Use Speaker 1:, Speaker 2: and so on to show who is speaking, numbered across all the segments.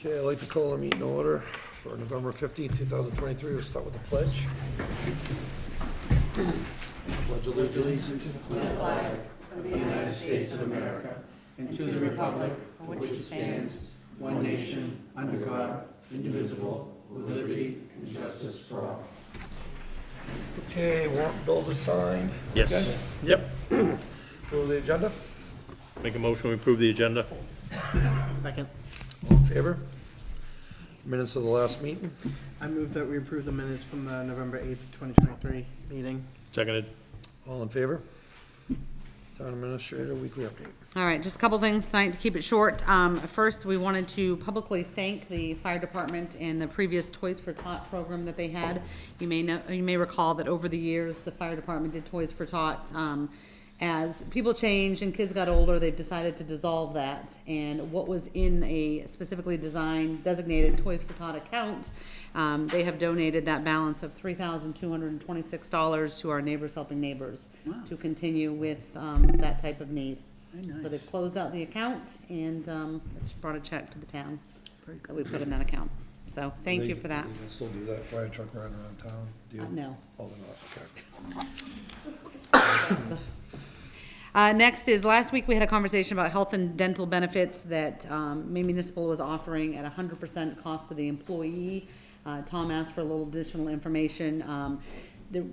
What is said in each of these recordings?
Speaker 1: Okay, I'd like to call a meeting order for November fifteenth, two 2023. We'll start with the pledge. Pledge allegiance. Okay, warrant bills assigned.
Speaker 2: Yes. Yep.
Speaker 1: Go to the agenda.
Speaker 2: Make a motion, we approve the agenda.
Speaker 3: Second.
Speaker 1: All in favor? Minutes of the last meeting.
Speaker 3: I move that we approve the minutes from the November 8th, 2023 meeting.
Speaker 2: Seconded.
Speaker 1: All in favor? Town administrator, weekly update.
Speaker 4: All right, just a couple things tonight to keep it short. Um, first, we wanted to publicly thank the fire department and the previous Toys for Tot program that they had. You may know, you may recall that over the years, the fire department did Toys for Tot. Um, as people changed and kids got older, they've decided to dissolve that. And what was in a specifically designed designated Toys for Tot account, um, they have donated that balance of three thousand two hundred and twenty-six dollars to our Neighbors Helping Neighbors to continue with, um, that type of need. So they've closed out the account and um, it's brought a check to the town that we put in that account. So thank you
Speaker 1: They-
Speaker 4: for that.
Speaker 1: They can still do that fire truck riding around town? deal?
Speaker 4: Uh, no.
Speaker 1: Oh, they're not, okay.
Speaker 4: Uh, next is, last week we had a conversation about health and dental benefits that um, Maine Municipal was offering at hundred percent cost to the employee. Uh, Tom asked for a little additional information. Um, the-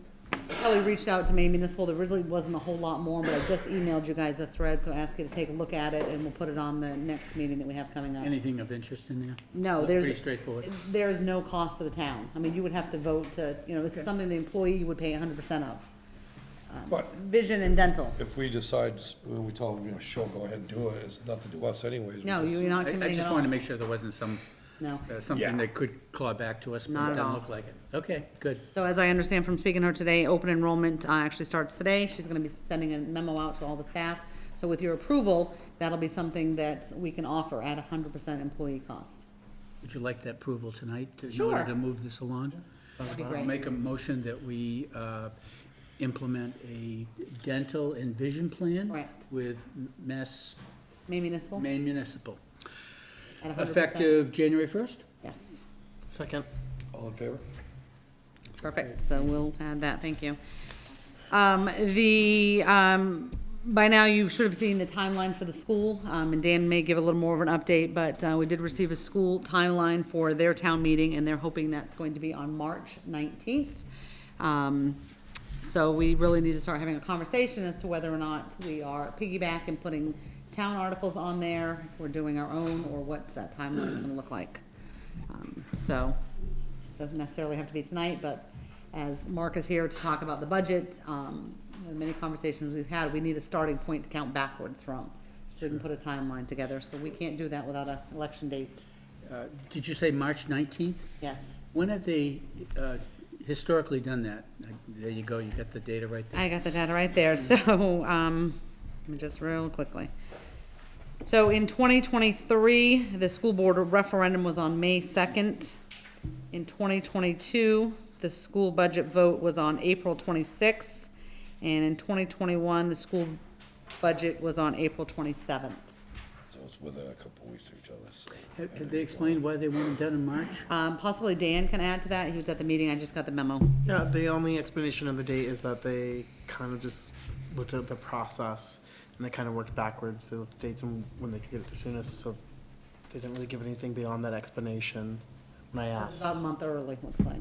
Speaker 4: Kelly reached out to Maine Municipal, there really wasn't a whole lot more, but I just emailed you guys a thread, so I ask you to take a look at it and we'll put it on the next meeting that we have coming up.
Speaker 5: Anything of interest in there?
Speaker 4: No, there's.
Speaker 5: Pretty straightforward.
Speaker 4: There is no cost to the town. I mean, you would have to vote to, you know, it's something the employee would pay hundred percent of. Um,
Speaker 1: But-
Speaker 4: Vision and dental.
Speaker 1: If we decide, when we tell them, you know, sure, go ahead and do it, it's nothing to us anyways. we
Speaker 4: No,
Speaker 1: just-
Speaker 4: you- you're not
Speaker 5: I- I
Speaker 4: committing at
Speaker 5: just
Speaker 4: all.
Speaker 5: wanted to make sure there wasn't some,
Speaker 4: No.
Speaker 5: uh,
Speaker 1: Yeah.
Speaker 5: something that could claw back to us,
Speaker 4: Not
Speaker 5: but
Speaker 4: at
Speaker 5: it doesn't
Speaker 4: all.
Speaker 5: look like it. Okay, good.
Speaker 4: So as I understand from speaking to her today, open enrollment uh, actually starts today. She's gonna be sending a memo out to all the staff. So with your approval, that'll be something that we can offer at hundred percent employee cost.
Speaker 5: Would you like that approval tonight? to- In
Speaker 4: Sure.
Speaker 5: order to move this along?
Speaker 4: be
Speaker 5: I'll
Speaker 4: great.
Speaker 5: Make a motion that we uh, implement a dental and vision plan.
Speaker 4: Correct.
Speaker 5: With Mass,
Speaker 4: Maine Municipal?
Speaker 5: Maine Municipal,
Speaker 4: at 100%.
Speaker 5: effective January 1st?
Speaker 4: Yes.
Speaker 3: Second.
Speaker 1: All in favor?
Speaker 4: Perfect, so we'll add that, thank you. Um, the, um, by now you should have seen the timeline for the school, um, and Dan may give a little more of an update, but, uh, we did receive a school timeline for their town meeting, and they're hoping that's going to be on March nineteenth. Um, so we really need to start having a conversation as to whether or not we are piggyback and putting town articles on there, if we're doing our own, or what that timeline is gonna look like. Um, So, doesn't necessarily have to be tonight, but as Mark is here to talk about the budget, um, the many conversations we've had, we need a starting point to count backwards from, so we can put a timeline together, so we can't do that without a election date,
Speaker 5: Uh, Did you say March 19th?
Speaker 4: yes.
Speaker 5: When have they uh, historically done that? Uh, There you go, you got the data right there.
Speaker 4: I got the data right there, so, um, let me just real quickly. So in twenty twenty-three, the school board referendum was on May second. In twenty twenty-two, the school budget vote was on April twenty-sixth. And in twenty twenty-one, the school budget was on April twenty-seventh.
Speaker 1: So it's within a couple of weeks of each other, so.
Speaker 5: Have have they explained why they want them done in March?
Speaker 4: Um, possibly Dan can add to that, he was at the meeting, I just got the memo.
Speaker 3: Yeah, the only explanation of the date is that they kind of just looked at the process and they kind of worked backwards. They looked at dates and when they could get it the soonest, so they didn't really give anything beyond that explanation when I
Speaker 4: It's
Speaker 3: asked.
Speaker 4: About a month early, looks like.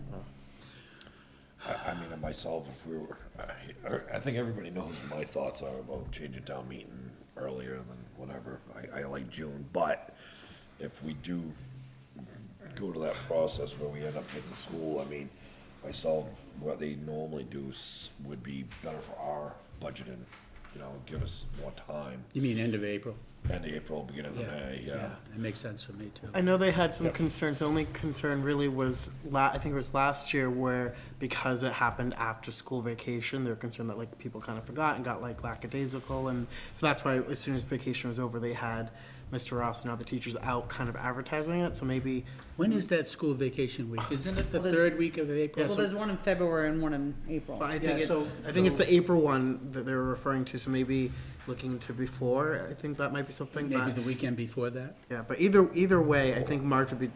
Speaker 6: I, I mean, and myself, if we were, I, I think everybody knows what my thoughts are about changing town meeting earlier than whatever. I, I like June, but if we do go to that process where we end up at the school, I mean, myself, what they normally do s- would be better for our budgeting, you know, give us more time,
Speaker 5: You mean end of April?
Speaker 6: end of April, beginning of May, yeah.
Speaker 5: It makes sense for me, too.
Speaker 3: I know they had some concerns. The only concern really was, la- I think it was last year where, because it happened after school vacation, they were concerned that like people kind of forgot and got like lackadaisical. And so that's why as soon as vacation was over, they had Mr. Ross and other teachers out kind of advertising it. So maybe,
Speaker 5: When is that school vacation week? Isn't it the
Speaker 4: Well, there's-
Speaker 5: third week of April?
Speaker 4: Well, there's one in February and one in April.
Speaker 3: but I think
Speaker 5: Yeah,
Speaker 3: it's,
Speaker 5: so-
Speaker 3: I think it's the April one that they were referring to. So maybe looking to before, I think that might be something,
Speaker 5: Maybe
Speaker 3: but,
Speaker 5: the weekend before that?
Speaker 3: yeah, but either, either way, I think March would be